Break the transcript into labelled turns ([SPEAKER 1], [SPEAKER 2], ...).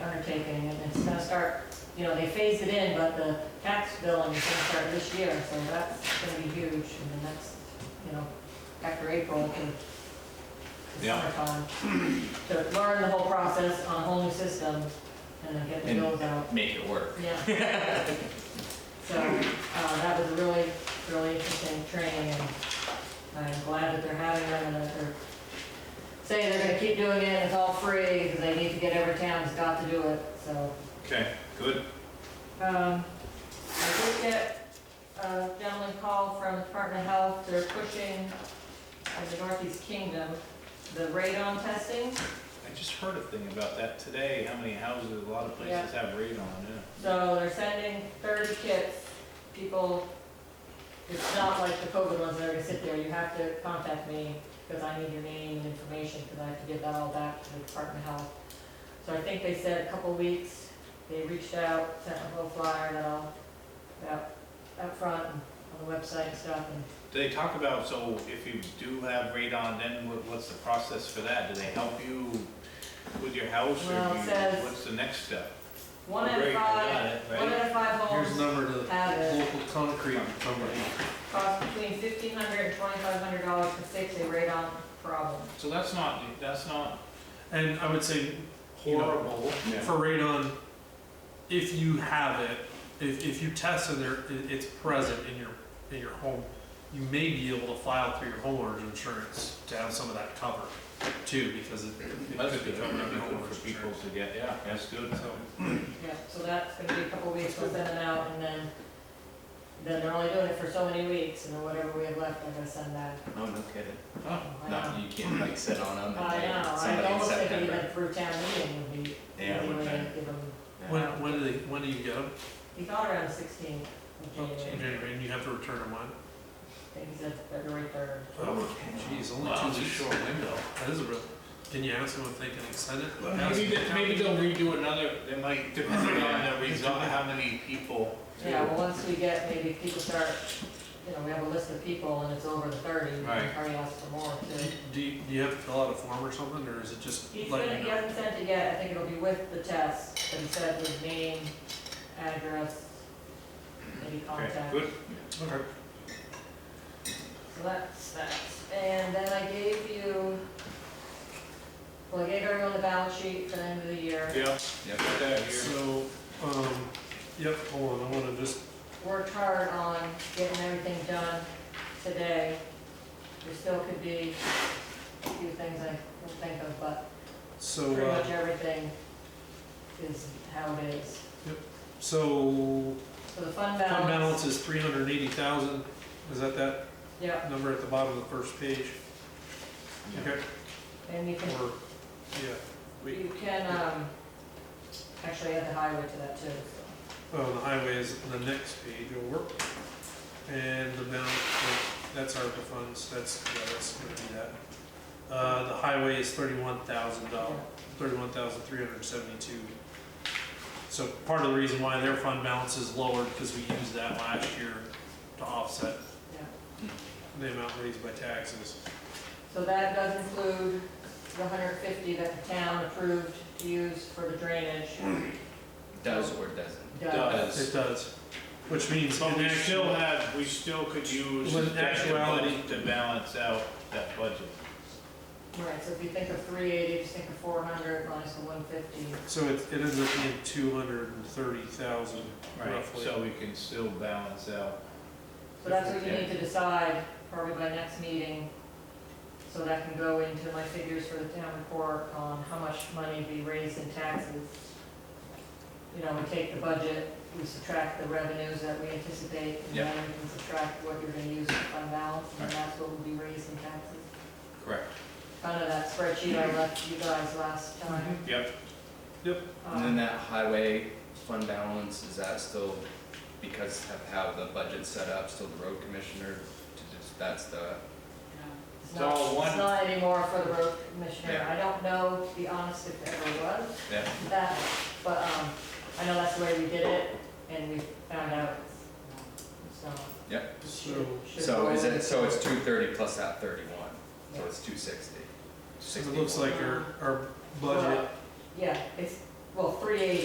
[SPEAKER 1] start, you know, they phase it in, but the tax billing is gonna start this year, so that's gonna be huge in the next, you know, after April to to
[SPEAKER 2] Yeah.
[SPEAKER 1] summertime. To learn the whole process on a whole new system and then get the
[SPEAKER 2] And-
[SPEAKER 1] bills out.
[SPEAKER 2] Make it work.
[SPEAKER 1] Yeah. So, uh, that was a really, really interesting training, and I'm glad that they're having them, and that they're saying they're gonna keep doing it, and it's all free, because they need to get every town's got to do it, so.
[SPEAKER 2] Okay, good.
[SPEAKER 1] Um, I did get a gentleman call from Department of Health, they're pushing in the Northeast Kingdom, the radon testing.
[SPEAKER 2] I just heard a thing about that today, how many houses, a lot of places have radon, yeah.
[SPEAKER 1] So they're sending thirty kits, people, it's not like the COVID ones that are gonna sit there, you have to contact me, because I need your name and information, because I have to give that all back to the Department of Health. So I think they said a couple weeks, they reached out, sent a little flyer and all, out, out front, and on the website and stuff, and
[SPEAKER 2] Do they talk about, so if you do have radon, then what- what's the process for that? Do they help you with your house, or
[SPEAKER 1] Well, it
[SPEAKER 2] do you-
[SPEAKER 1] says-
[SPEAKER 2] what's the next step?
[SPEAKER 1] one out of
[SPEAKER 2] Great, I got
[SPEAKER 1] five,
[SPEAKER 2] it,
[SPEAKER 1] one
[SPEAKER 2] right?
[SPEAKER 1] out of five
[SPEAKER 3] Here's the
[SPEAKER 1] homes
[SPEAKER 3] number to the
[SPEAKER 1] have it.
[SPEAKER 3] local concrete company.
[SPEAKER 1] cost between fifteen hundred and twenty-five hundred dollars to fix a radon problem.
[SPEAKER 2] So that's not, that's not
[SPEAKER 3] And I would say, you know,
[SPEAKER 2] horrible.
[SPEAKER 3] for radon, if you have it, if, if you test and there, it- it's present in your, in your home, you may be able to file through your homeowner's insurance to have some of that covered too, because it it
[SPEAKER 2] That's
[SPEAKER 3] could be
[SPEAKER 2] good,
[SPEAKER 3] covered under
[SPEAKER 2] good
[SPEAKER 3] homeowner's
[SPEAKER 2] for people
[SPEAKER 3] insurance.
[SPEAKER 2] to get, yeah, that's good.
[SPEAKER 3] So,
[SPEAKER 1] Yeah, so that's gonna be a couple weeks, we'll send it out, and then, then they're only doing it for so many weeks, and then whatever we have left, they're gonna send that.
[SPEAKER 4] Oh, no kidding.
[SPEAKER 2] Oh,
[SPEAKER 1] I
[SPEAKER 4] No,
[SPEAKER 1] know.
[SPEAKER 4] you can't like sit on them and
[SPEAKER 1] I know,
[SPEAKER 4] wait
[SPEAKER 1] I
[SPEAKER 4] somebody in
[SPEAKER 1] almost think
[SPEAKER 4] September.
[SPEAKER 1] even through town meeting would be,
[SPEAKER 4] Yeah,
[SPEAKER 1] they
[SPEAKER 4] would
[SPEAKER 1] would
[SPEAKER 4] be.
[SPEAKER 1] give them,
[SPEAKER 3] when,
[SPEAKER 4] Yeah.
[SPEAKER 3] when do they, when do you get them?
[SPEAKER 1] he thought around sixteen of January,
[SPEAKER 3] January, and you have to return them when?
[SPEAKER 1] I think he said February third.
[SPEAKER 3] Oh, geez, only
[SPEAKER 2] Wow,
[SPEAKER 3] two
[SPEAKER 2] it's a
[SPEAKER 3] weeks.
[SPEAKER 2] short
[SPEAKER 3] window. That is a real, can you ask them if they can extend it?
[SPEAKER 2] Maybe, they- maybe they'll redo another, they might, depending on the result, how many people.
[SPEAKER 1] Yeah, well, once we get, maybe people start, you know, we have a list of people, and it's over the thirty, we
[SPEAKER 2] Right.
[SPEAKER 1] already asked for more, too.
[SPEAKER 3] Do you, do you have to fill out a form or something, or is it just
[SPEAKER 1] He's gonna,
[SPEAKER 3] letting you
[SPEAKER 1] he
[SPEAKER 3] know?
[SPEAKER 1] hasn't sent it yet, I think it'll be with the test, but he said his name, address, maybe
[SPEAKER 2] Okay,
[SPEAKER 1] contact.
[SPEAKER 2] good.
[SPEAKER 3] Okay.
[SPEAKER 1] So that's that, and then I gave you, well, I gave everyone the balance sheet for the end of the year.
[SPEAKER 2] Yeah,
[SPEAKER 4] Yep.
[SPEAKER 2] put that here.
[SPEAKER 3] So, um, yep, hold on, I wanna just,
[SPEAKER 1] Worked hard on getting everything done today. There still could be a few things I can think of, but
[SPEAKER 3] so,
[SPEAKER 1] pretty
[SPEAKER 3] uh,
[SPEAKER 1] much everything is how it is.
[SPEAKER 3] so
[SPEAKER 1] So the fund
[SPEAKER 3] fund
[SPEAKER 1] balance,
[SPEAKER 3] balance is three hundred and eighty thousand, is that that
[SPEAKER 1] yeah,
[SPEAKER 3] number at the bottom of the first page? Okay,
[SPEAKER 1] and you can
[SPEAKER 3] or, yeah, we,
[SPEAKER 1] You can, um, actually add the highway to that too, so.
[SPEAKER 3] oh, the highway is the next page over. And the balance, like, that's ARPA funds, that's, yeah, that's gonna be that. Uh, the highway is thirty-one thousand dollars. thirty-one thousand three hundred seventy-two. So part of the reason why their fund balance is lower, because we used that last year to offset
[SPEAKER 1] Yeah.
[SPEAKER 3] the amount raised by taxes.
[SPEAKER 1] So that does include the hundred fifty that the town approved to use for the drainage.
[SPEAKER 4] Does or doesn't.
[SPEAKER 1] Does.
[SPEAKER 3] It does, which means
[SPEAKER 2] But
[SPEAKER 3] in
[SPEAKER 2] we still
[SPEAKER 3] actual,
[SPEAKER 2] have, we still could use
[SPEAKER 3] With
[SPEAKER 2] that
[SPEAKER 3] actuality.
[SPEAKER 2] budget to balance out that budget.
[SPEAKER 1] Right, so if you think of three eighty, just think of four hundred minus the one fifty.
[SPEAKER 3] so it, it ends up being two hundred and thirty thousand
[SPEAKER 2] Right,
[SPEAKER 3] roughly.
[SPEAKER 2] so we can still balance out.
[SPEAKER 1] So that's what you need to decide probably by next meeting. So that can go into my figures for the town report on how much money we raised in taxes. You know, we take the budget, we subtract the revenues that we anticipate, and
[SPEAKER 2] Yeah.
[SPEAKER 1] then we can subtract what you're gonna use for fund balance, and
[SPEAKER 2] Right.
[SPEAKER 1] that's what will be raised in taxes.
[SPEAKER 2] Correct.
[SPEAKER 1] Kind of that spreadsheet I left you guys last time.
[SPEAKER 2] Yep,
[SPEAKER 4] Mm-hmm. And then
[SPEAKER 1] Um,
[SPEAKER 4] that highway fund balance, is that still because of how the budget's set up, still the road commissioner? to just- That's the,
[SPEAKER 1] It's
[SPEAKER 2] It's
[SPEAKER 1] not,
[SPEAKER 2] all one-
[SPEAKER 1] it's not anymore for the road commissioner.
[SPEAKER 4] Yeah.
[SPEAKER 1] I don't know, to be honest, if there ever was.
[SPEAKER 4] yeah,
[SPEAKER 1] that, but, um, I know that's the way we did it, and we found out, so.
[SPEAKER 4] Yep.
[SPEAKER 3] So,
[SPEAKER 1] should
[SPEAKER 4] so is
[SPEAKER 1] roll
[SPEAKER 4] it, so it's
[SPEAKER 1] into-
[SPEAKER 4] two thirty plus that thirty-one, so
[SPEAKER 1] Yeah.
[SPEAKER 4] it's two sixty.
[SPEAKER 3] so it looks like our, our budget
[SPEAKER 1] Yeah, it's, well, three eighty